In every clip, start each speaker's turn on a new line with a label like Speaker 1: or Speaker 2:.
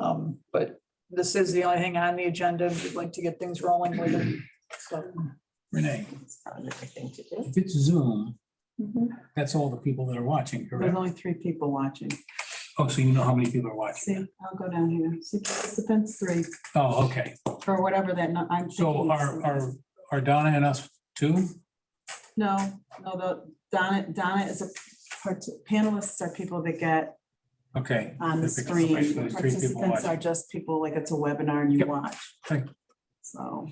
Speaker 1: Um, but this is the only thing on the agenda. We'd like to get things rolling with it. So,
Speaker 2: Renee,
Speaker 3: It's not a good thing to do.
Speaker 2: if it's Zoom,
Speaker 4: Mm-hmm.
Speaker 3: Mhm.
Speaker 2: that's all the people that are watching,
Speaker 4: There's
Speaker 2: correct?
Speaker 4: only three people watching.
Speaker 2: Oh, so you know how many people are watching?
Speaker 4: See, I'll go down here. See participants three,
Speaker 2: Oh, okay.
Speaker 4: or whatever that, nu- I'm.
Speaker 2: So
Speaker 4: thinking it's-
Speaker 2: are, are, are Donna and us too?
Speaker 4: No, no, the Donna, Donna is a, part- panelists are people that get
Speaker 2: Okay.
Speaker 4: on the
Speaker 2: There's three
Speaker 4: screen.
Speaker 2: people
Speaker 4: Participants are
Speaker 2: watching.
Speaker 4: just people, like it's a webinar and you
Speaker 2: Yep.
Speaker 4: watch.
Speaker 2: Okay.
Speaker 4: So,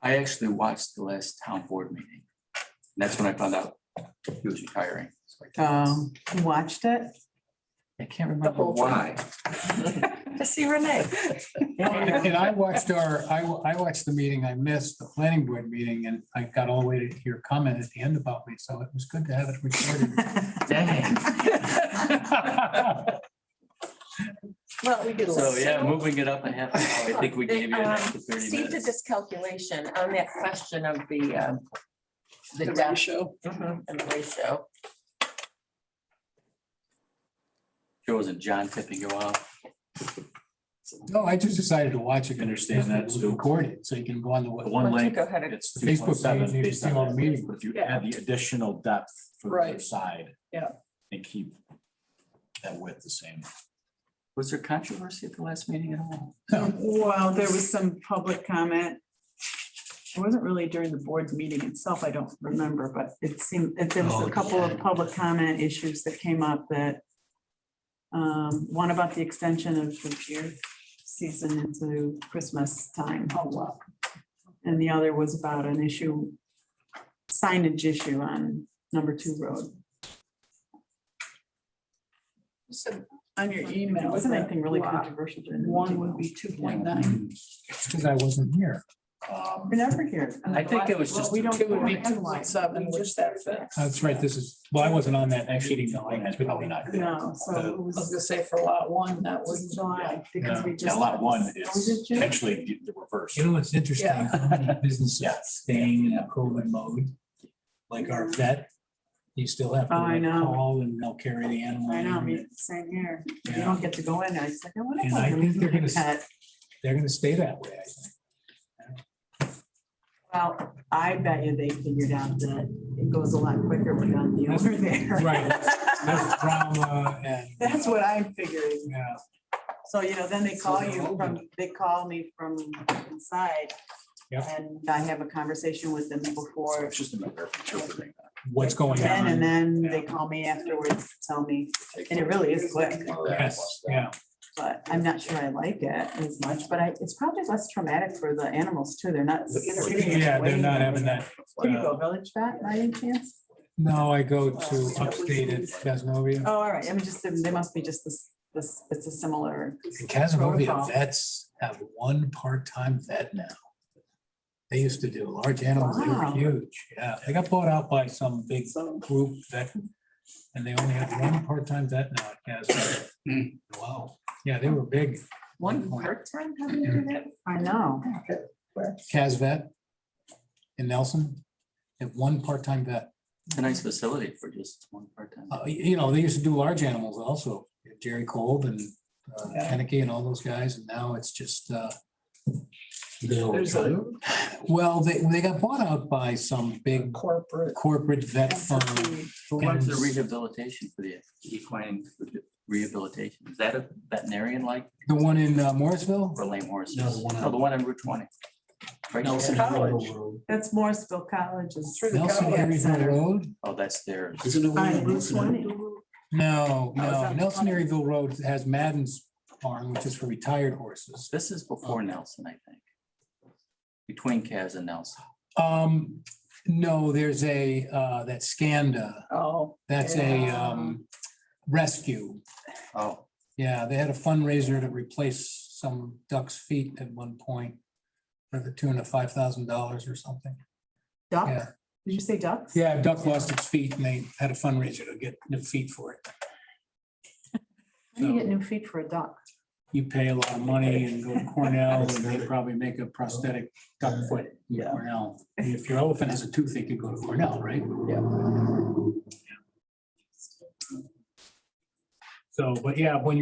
Speaker 5: I actually watched the last town board meeting. And that's when I found out he was retiring. So I-
Speaker 4: um, you watched it?
Speaker 5: I can't remember
Speaker 3: whole
Speaker 5: why.
Speaker 3: I see Renee.
Speaker 2: And and I watched our, I, wa- I watched the meeting, I missed the planning board meeting and I got all the way to your comment at the end about me, so it was good to have it recorded.
Speaker 5: Dang.
Speaker 3: Well, we did. a
Speaker 5: So, yeah,
Speaker 3: little-
Speaker 5: moving it up a half an hour, I think we gave you an extra thirty
Speaker 3: Steve did
Speaker 5: minutes.
Speaker 3: this calculation on that question of the, um, the
Speaker 1: The
Speaker 3: depth
Speaker 1: ratio.
Speaker 3: mhm, and the ratio.
Speaker 5: Sure wasn't John tipping you off.
Speaker 2: No, I just decided to watch it.
Speaker 6: Understand that,
Speaker 2: It was
Speaker 6: Sue.
Speaker 2: Recorded, so you can go on the.
Speaker 6: The
Speaker 2: web-
Speaker 6: one
Speaker 3: Why don't you
Speaker 6: link,
Speaker 3: Go ahead and
Speaker 6: it's.
Speaker 2: Facebook page,
Speaker 6: 2.7
Speaker 2: you
Speaker 6: based
Speaker 2: see
Speaker 6: on
Speaker 2: all the
Speaker 6: that.
Speaker 2: meetings.
Speaker 6: But If you add the additional depth for the other
Speaker 1: Right.
Speaker 6: side.
Speaker 1: Yeah.
Speaker 6: And keep that width the same.
Speaker 5: Was there controversy at the last meeting at all?
Speaker 4: Um, Well, there was some public comment. It wasn't really during the board's meeting itself, I don't remember, but it seemed, it- there was
Speaker 5: Oh,
Speaker 4: a couple of
Speaker 5: yeah.
Speaker 4: public comment issues that came up that. Um, one about the extension of the deer season into Christmas time, oh well. And the other was about an issue, signage issue on number two road.
Speaker 1: So On your email.
Speaker 4: It wasn't anything really
Speaker 1: that lot
Speaker 4: controversial during the
Speaker 1: One
Speaker 4: meeting.
Speaker 1: would be two point nine.
Speaker 2: It's because I wasn't here.
Speaker 6: Um,
Speaker 4: We're never here.
Speaker 5: I think it was just
Speaker 4: We don't.
Speaker 1: Two would be two
Speaker 4: analyze.
Speaker 1: point seven,
Speaker 4: We
Speaker 1: which
Speaker 4: just-
Speaker 1: that fits.
Speaker 2: That's right, this is, well, I wasn't on that next meeting. though.
Speaker 6: Actually, that's probably not good.
Speaker 4: No, so it
Speaker 1: I was
Speaker 4: was,
Speaker 1: gonna say for lot one, that
Speaker 4: it was
Speaker 1: was.
Speaker 4: July, because we
Speaker 6: Yeah,
Speaker 4: just.
Speaker 6: lot one
Speaker 4: Was it
Speaker 6: is
Speaker 4: June?
Speaker 6: actually the- the reverse.
Speaker 2: You know, it's interesting
Speaker 1: Yeah.
Speaker 2: how many businesses are staying in a COVID mode, like our vet. You still have to
Speaker 4: Oh, I
Speaker 2: like,
Speaker 4: know.
Speaker 2: call and they'll carry the animal.
Speaker 4: I know,
Speaker 2: in.
Speaker 4: me- same here. You
Speaker 2: Yeah.
Speaker 4: don't get to go in. I was like, I want to
Speaker 2: And
Speaker 4: go.
Speaker 2: I
Speaker 4: in
Speaker 2: think they're
Speaker 4: with my
Speaker 2: gonna s-
Speaker 4: pet.
Speaker 2: They're gonna stay that way, I think.
Speaker 4: Well, I bet you they figured out that it goes a lot quicker without the
Speaker 2: That's-
Speaker 4: owner there.
Speaker 2: right. Less drama and.
Speaker 4: That's what I'm figuring.
Speaker 2: Yeah,
Speaker 4: So, you know, then they call
Speaker 2: they're
Speaker 4: you
Speaker 2: open.
Speaker 4: from, they call me from inside.
Speaker 2: Yep.
Speaker 4: And I have a conversation with them
Speaker 6: So
Speaker 4: before
Speaker 6: It's just a matter of interpreting that.
Speaker 2: what's going
Speaker 4: then, and
Speaker 2: on?
Speaker 4: then
Speaker 6: Yeah.
Speaker 4: they call me afterwards, to tell me,
Speaker 6: Take
Speaker 4: and it really is quick.
Speaker 6: that plus
Speaker 2: Yes,
Speaker 6: that.
Speaker 2: yeah,
Speaker 4: but I'm not sure I like it as much, but I, it's probably less traumatic for the animals too. They're not. sitting and
Speaker 2: yeah, they're
Speaker 4: waiting.
Speaker 2: not having that. uh,
Speaker 4: Do you go village vet by any chance?
Speaker 2: No, I go to upstate at Casnovia.
Speaker 4: Oh, all right. I mean, just, they must be just this, this, it's a similar.
Speaker 2: In Casanova,
Speaker 4: Protocol.
Speaker 2: vets have one part-time vet now. They used to do large animals, they were
Speaker 4: Wow.
Speaker 2: huge, yeah. They got bought out by some big group that, and they only have one part-time vet now at Casanova. Wow, yeah, they were big.
Speaker 3: One part-time, how do you do that?
Speaker 4: I know.
Speaker 2: Cas vet in Nelson, they have one part-time vet.
Speaker 5: It's a nice facility for just one part-time.
Speaker 2: Uh, y- You know, they used to do large animals also, Jerry Cole and uh, Kenneke and all those guys, and now it's just, uh,
Speaker 1: There's a
Speaker 2: well, they, they got bought out by some big
Speaker 1: corporate.
Speaker 2: corporate vet firm.
Speaker 5: Who runs the rehabilitation for the equine rehabilitation? Is that a veterinarian like
Speaker 2: The one in uh, Morrisville?
Speaker 5: or lame horses?
Speaker 7: No, the one on-
Speaker 5: Oh, the one on Route twenty. Right
Speaker 7: Nelson
Speaker 5: there.
Speaker 7: College.
Speaker 4: That's Morrisville College is.
Speaker 1: Through the
Speaker 2: Nelson
Speaker 1: Cowboy
Speaker 2: Erie
Speaker 4: Center.
Speaker 2: Road?
Speaker 5: Oh, that's theirs.
Speaker 7: Isn't it?
Speaker 4: On Route
Speaker 7: one?
Speaker 4: 20.
Speaker 2: No,
Speaker 1: No, it's
Speaker 2: no,
Speaker 1: on-
Speaker 2: Nelson Eryville Road has Madden's Barn, which is for retired horses.
Speaker 5: This is before Nelson, I think. Between Cas and Nelson.
Speaker 2: Um, no, there's a, uh, that Scanda,
Speaker 1: Oh,
Speaker 2: that's a, um, rescue.
Speaker 5: Oh,
Speaker 2: Yeah, they had a fundraiser to replace some duck's feet at one point for the tune of five thousand dollars or something.
Speaker 4: Duck?
Speaker 2: Yeah.
Speaker 4: Did you say ducks?
Speaker 2: Yeah, a duck lost its feet and they had a fundraiser to get new feet for it.
Speaker 4: How do you get new feet for a duck?
Speaker 2: you pay a lot of money and go to Cornell, and they probably make a prosthetic duck foot in
Speaker 5: Yeah.
Speaker 2: Cornell. If your elephant has a tooth, they could go to Cornell, right? Yeah. So, but yeah, when